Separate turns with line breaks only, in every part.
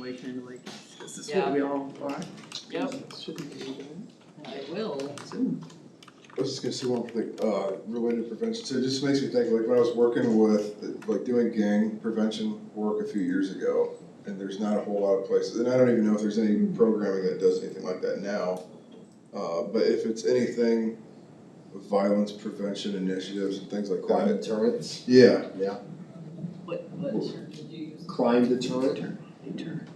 Way kind of like, this is
Yeah.
what we all are.
Yep.
Shouldn't be doing
I will.
it soon.
I was just gonna say one thing, uh, related to prevention, so it just makes me think, like, when I was working with, like, doing gang prevention work a few years ago, and there's not a whole lot of places, and I don't even know if there's any programming that does anything like that now. Uh, but if it's anything, violence prevention initiatives and things like
Crime
that,
deterrence,
yeah,
What, what term did you use?
crime deterrent,
Turn, they turn.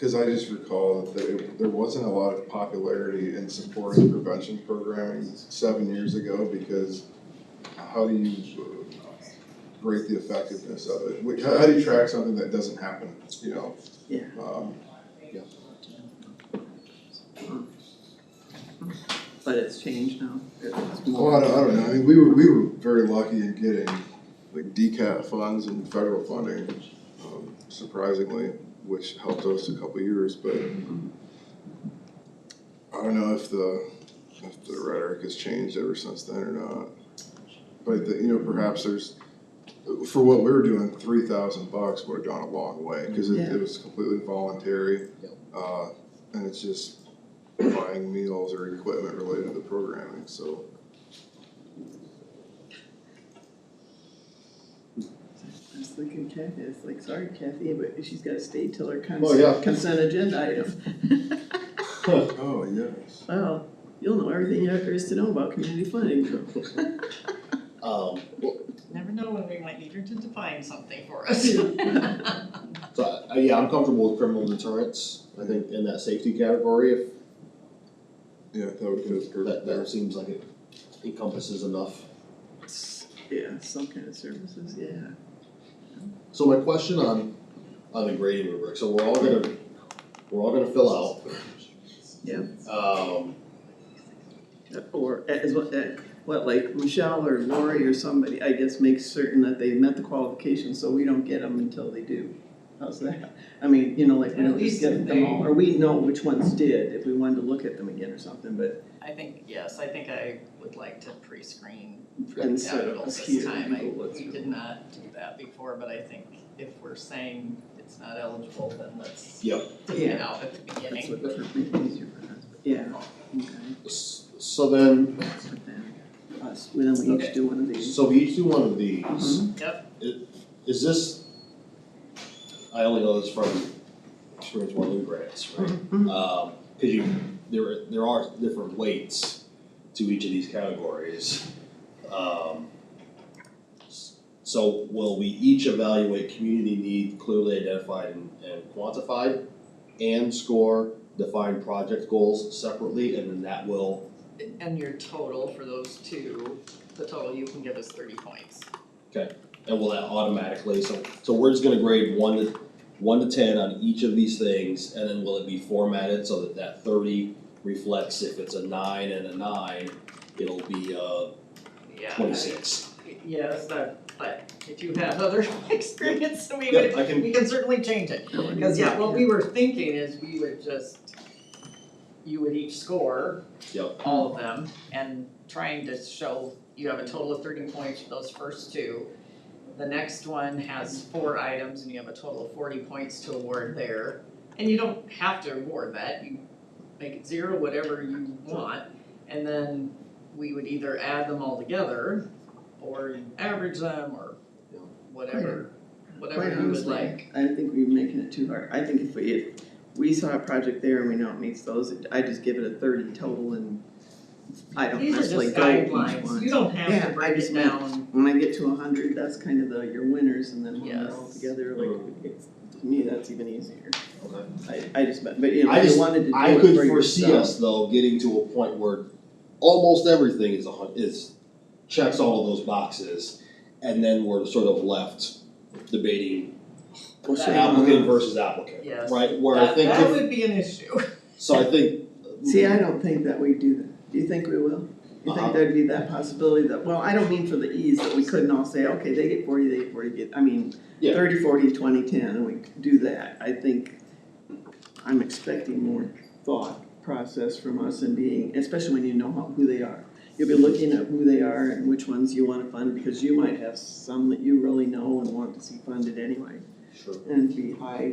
Cause I just recall that there, there wasn't a lot of popularity in supporting prevention programming seven years ago because how do you uh, rate the effectiveness of it? Wh- How how do you track something that doesn't happen, you know?
Yeah.
Um,
But it's changed now. It's
well, Oh, I
more-
don't, I don't know, I mean, we were, we were very lucky in getting like DCAT funds and federal funding, um, surprisingly, which helped us a couple years, but I don't know if the, if the rhetoric has changed ever since then or not. But, the- you know, perhaps there's, for what we were doing, three thousand bucks would have gone a long way, cause it,
Yeah.
it was completely voluntary.
Yep.
Uh, and it's just buying meals or equipment related to the programming, so.
I was thinking Kathy, I was like, sorry Kathy, but she's gotta stay till her
Oh, yeah.
consent, consent agenda item.
Oh, yes.
Well, you'll know everything there is to know about community funding.
um,
Never know when we might need her to define something for us.
so, uh, yeah, I'm comfortable with criminal deterrence, I think in that safety category, if
Yeah, that would fit
that, that
perfect.
seems like it encompasses enough.
Yeah, some kind of services, yeah.
So my question on, on the grading rubric, so we're all gonna, we're all gonna fill out.
Yep.
Um,
Or as what, eh, what, like Michelle or Lori or somebody, I guess, makes certain that they met the qualifications, so we don't get them until they do. How's that? I mean, you know, like, we
At
don't just
least
get
they-
them all, or we know which ones did, if we wanted to look at them again or something, but
I think, yes, I think I would like to pre-screen for the
instead
capital
of us
this
here,
time. I,
people look
we
through.
did not do that before, but I think if we're saying it's not eligible, then let's
Yep.
take it out at the
That's
beginning.
what the make easier for us, but yeah, okay,
s- so then,
but then us, we then we
Okay.
each do one of these.
so we each do one of these.
Mhm.
Is this, I only know this from experience with Lou grants, right?
Mhm.
Um 'cause cause you, there, there are different weights to each of these categories. Um, s- so will we each evaluate community need clearly identified and, and quantified? And score defined project goals separately, and then that will,
And your total for those two, the total you can give us thirty points.
and will that automatically, so, so we're just gonna grade one to, one to ten on each of these things, and then will it be formatted so that that thirty reflects if it's a nine and a nine, it'll be, uh,
Yeah.
twenty-six.
Yes, that, but if you have other experience, we
Yep,
would,
I can-
we can certainly change it. Because, yeah, what we were thinking is we would just, you would each score
Yep.
all of them and trying to show you have a total of thirty points for those first two. The next one has four items and you have a total of forty points to award there. And you don't have to award that, you make it zero, whatever you want. And then we would either add them all together or average them or whatever, whatever
Quite
you would
honestly,
like.
I think we're making it too hard, I think if we, if we saw a project there and we know it meets those, I just give it a thirty total and I don't
These are
necessarily
just
go each one.
guidelines, you don't have
Yeah, I
to break
just
it
meant-
down,
When I get to a hundred, that's kind of the, your winners, and then when they're all
Yes.
together, like,
Mm.
it's, to me, that's even easier.
Okay.
I, I just, meant- but you know,
I
if
just-
you wanted to do
I
it for
could foresee
yourself.
us though getting to a point where almost everything is a hun- is checks all of those boxes, and then we're sort of left debating
Well, sure.
applicant versus applicant,
Yes.
right? Where I
that,
think,
that
if-
would be an issue.
so I think. hmm,
See, I don't think that we do that, do you think we will? You
Uh-huh.
think there'd be that possibility that, well, I don't mean for the ease, that we couldn't all say, okay, they get forty, they get forty, get, I mean,
Yeah.
thirty, forty, twenty, ten, and we do that, I think I'm expecting more thought process from us and being, especially when you know how, who they are. You'll be looking at who they are and which ones you wanna fund, because you might have some that you really know and want to see funded anyway.
Sure.
and be high